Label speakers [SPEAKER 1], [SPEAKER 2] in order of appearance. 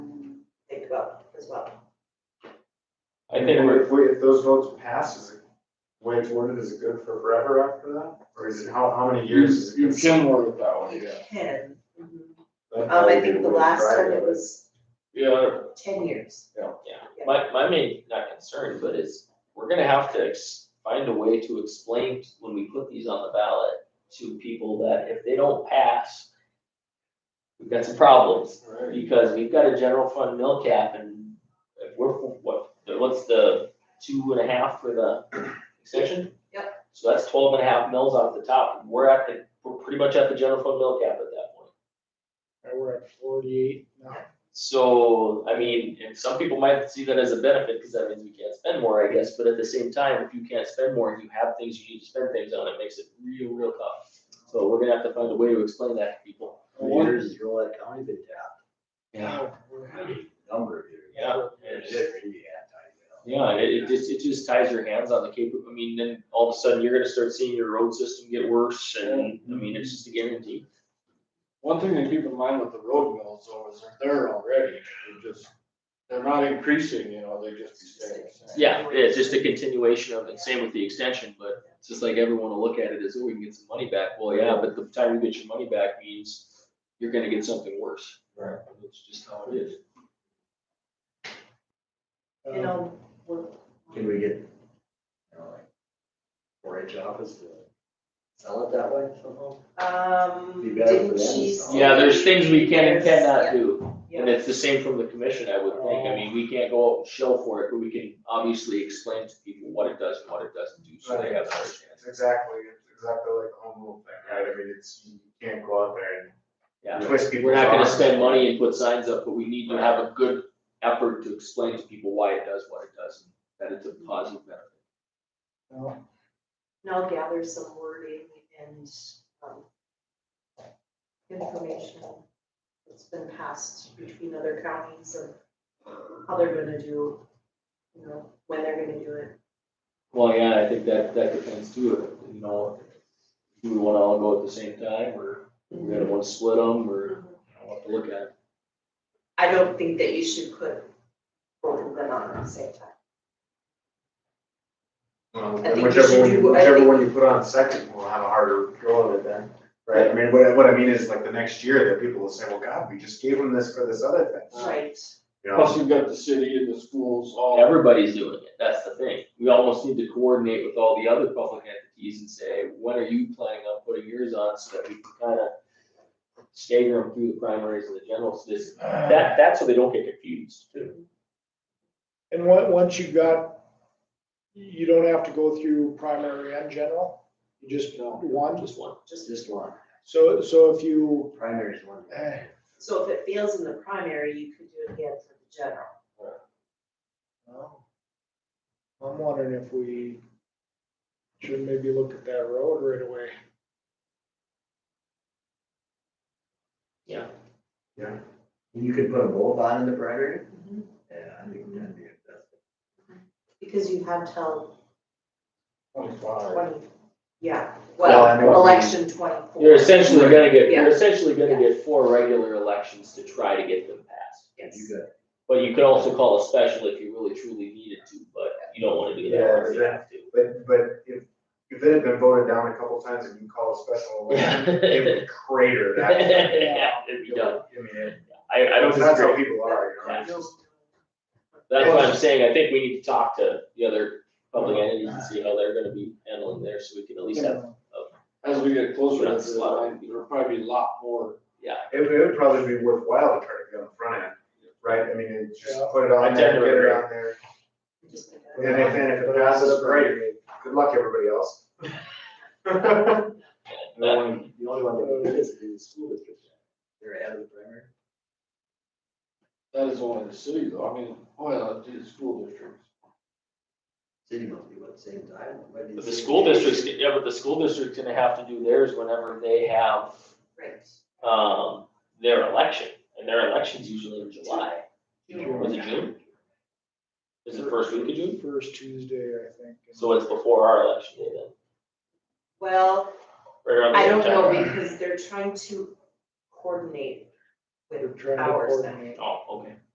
[SPEAKER 1] as well.
[SPEAKER 2] I think we're,
[SPEAKER 3] If we, if those votes pass, is it, the way it's worded, is it good for forever after that? Or is it, how, how many years is it?
[SPEAKER 2] you
[SPEAKER 3] good?
[SPEAKER 2] can work it that way, yeah.
[SPEAKER 1] Ten. Um,
[SPEAKER 4] Mm-hmm.
[SPEAKER 3] That- that
[SPEAKER 1] I
[SPEAKER 3] would be
[SPEAKER 1] think the
[SPEAKER 3] really
[SPEAKER 1] last time it
[SPEAKER 3] private.
[SPEAKER 1] was
[SPEAKER 2] Yeah,
[SPEAKER 1] ten years.
[SPEAKER 5] Yeah, my, my main, not concern, but is, we're gonna have to ex- find a way to explain t- when we put these on the ballot to people that if they don't pass, we've got some problems,
[SPEAKER 3] Right.
[SPEAKER 5] because we've got a general fund mill cap and if we're, what, what's the two and a half for the extension? Yep. So that's twelve and a half mils off the top, we're at the, we're pretty much at the general fund mill cap at that point.
[SPEAKER 2] And we're at forty-eight now.
[SPEAKER 5] So, I mean, and some people might see that as a benefit, because that means we can't spend more, I guess, but at the same time, if you can't spend more, and you have things you need to spend things on, it makes it real, real tough. So we're gonna have to find a way to explain that to people.
[SPEAKER 4] Years is Rolette County been tapped, number of years.
[SPEAKER 5] Yeah.
[SPEAKER 4] It's really anti-well.
[SPEAKER 5] Yeah, it, it just, it just ties your hands on the cape, I mean, then all of a sudden, you're gonna start seeing your road system get worse, and, I mean, it's just a guarantee.
[SPEAKER 2] One thing to keep in mind with the road mills though is they're there already, they're just, they're not increasing, you know, they just be staying the same.
[SPEAKER 5] Yeah, it's just a continuation of it, same with the extension, but it's just like everyone will look at it as, oh, we can get some money back, well, yeah, but the time you get your money back means you're gonna get something worse.
[SPEAKER 3] Right.
[SPEAKER 5] It's just how it is.
[SPEAKER 4] Oh.
[SPEAKER 1] You know, we're.
[SPEAKER 4] Can we get, you know, like, four H office to sell it that way somehow?
[SPEAKER 1] Um,
[SPEAKER 4] Be better for
[SPEAKER 1] didn't
[SPEAKER 4] them,
[SPEAKER 1] she?
[SPEAKER 4] so.
[SPEAKER 1] say-
[SPEAKER 5] Yeah, there's things we can and cannot do,
[SPEAKER 1] Yeah,
[SPEAKER 5] and it's the same from the commission, I would think, I mean, we can't go out and shell for it, but we can obviously explain to people what it does and what it doesn't do, so they have an understanding.
[SPEAKER 3] It's exactly, it's exactly like the home rule thing, right? I mean, it's, you can't go out there
[SPEAKER 5] Yeah.
[SPEAKER 3] and twist people's
[SPEAKER 5] We're not gonna
[SPEAKER 3] arms.
[SPEAKER 5] spend money and put signs up, but we need to have a good effort to explain to people why it does what it does, and that it's a positive benefit.
[SPEAKER 1] And I'll gather some wording and, um, information that's been passed between other counties of how they're gonna do, you know, when they're gonna do it.
[SPEAKER 5] Well, yeah, I think that, that depends too, you know, do we wanna all go at the same time, or we gonna wanna split them, or I want to look at it.
[SPEAKER 1] I don't think that you should put both of them on at the same time.
[SPEAKER 3] Well,
[SPEAKER 1] think you
[SPEAKER 3] Um, Whichever
[SPEAKER 1] should
[SPEAKER 3] one,
[SPEAKER 1] do- I
[SPEAKER 3] whichever
[SPEAKER 1] think-
[SPEAKER 3] one you put on second will have a harder go of it then, right? I mean, what, what I mean is like the next year that people will say, well, God, we just gave them this for this other
[SPEAKER 4] Uh,
[SPEAKER 3] thing.
[SPEAKER 1] Right.
[SPEAKER 3] You know?
[SPEAKER 2] Plus you've got the city and the schools all,
[SPEAKER 5] Everybody's doing it, that's the thing, we almost need to coordinate with all the other public entities and say, when are you planning on putting yours on, so that we can kinda stagger them through the primaries and the generals, this, that, that's so they don't get confused too.
[SPEAKER 6] And on- once you got, you don't have to go through primary and general, you just
[SPEAKER 2] No.
[SPEAKER 6] one.
[SPEAKER 5] Just one.
[SPEAKER 4] Just, just one,
[SPEAKER 6] So, so if you,
[SPEAKER 4] primary is one.
[SPEAKER 6] eh,
[SPEAKER 1] So if it fails in the primary, you could do it again for the general.
[SPEAKER 6] well, I'm wondering if we should maybe look at that road right away.
[SPEAKER 4] You could put a bowl on in the primary? Yeah, I think that'd be, that's
[SPEAKER 1] Because you have till
[SPEAKER 2] twenty-five,
[SPEAKER 1] twenty, yeah,
[SPEAKER 3] Well, I know
[SPEAKER 1] well,
[SPEAKER 3] what you mean.
[SPEAKER 1] election twenty-four.
[SPEAKER 5] You're essentially gonna get,
[SPEAKER 1] Yeah.
[SPEAKER 5] you're essentially gonna get four regular elections to try to get them passed.
[SPEAKER 1] Yes.
[SPEAKER 4] you got,
[SPEAKER 5] But you could also call a special if you really truly needed to, but you don't wanna do that
[SPEAKER 3] Yeah,
[SPEAKER 5] unless you have to.
[SPEAKER 3] But, but if, if it had been voted down a couple times and you call a special election, it would crater that.
[SPEAKER 5] Yeah, it'd be done.
[SPEAKER 3] I mean, it-
[SPEAKER 5] I, I don't
[SPEAKER 3] That's how
[SPEAKER 5] disagree.
[SPEAKER 3] people are, you know?
[SPEAKER 5] Yeah.
[SPEAKER 3] It's just-
[SPEAKER 5] That's what I'm saying, I think we need to talk to the other public entities and see how they're gonna be handling there, so we can at least have,
[SPEAKER 2] as we get closer to the
[SPEAKER 5] Slot.
[SPEAKER 2] line, there'll probably be a lot more.
[SPEAKER 5] yeah.
[SPEAKER 3] It would, it would probably be worthwhile to try to get on the front end, right? I mean, it- just
[SPEAKER 6] Yeah.
[SPEAKER 3] put it on
[SPEAKER 5] I
[SPEAKER 3] there,
[SPEAKER 5] tend to
[SPEAKER 3] get it
[SPEAKER 5] agree.
[SPEAKER 3] on there.
[SPEAKER 1] Just like that.
[SPEAKER 3] And if, and if it passes, great. Good luck, everybody else.
[SPEAKER 4] the only, one- the only one that did this is the school district. They're ahead of the primary.
[SPEAKER 2] That is only the city though, I mean, oh well, the school districts.
[SPEAKER 4] City must be what, same time? Might be
[SPEAKER 5] But the school
[SPEAKER 4] same.
[SPEAKER 5] district's, yeah, but the school district's gonna have to do theirs whenever they have,
[SPEAKER 1] Right.
[SPEAKER 5] um, their election, and their election's usually in July. Was it June? Is it first week of June?
[SPEAKER 6] First Tuesday, I think.
[SPEAKER 5] So it's before our election day then?
[SPEAKER 1] Well,
[SPEAKER 5] right around the
[SPEAKER 1] I
[SPEAKER 5] same
[SPEAKER 1] don't know,
[SPEAKER 5] time?
[SPEAKER 1] because they're trying to coordinate
[SPEAKER 6] We're
[SPEAKER 1] with
[SPEAKER 6] trying to
[SPEAKER 1] ours now.
[SPEAKER 6] coordinate.
[SPEAKER 5] Oh, okay.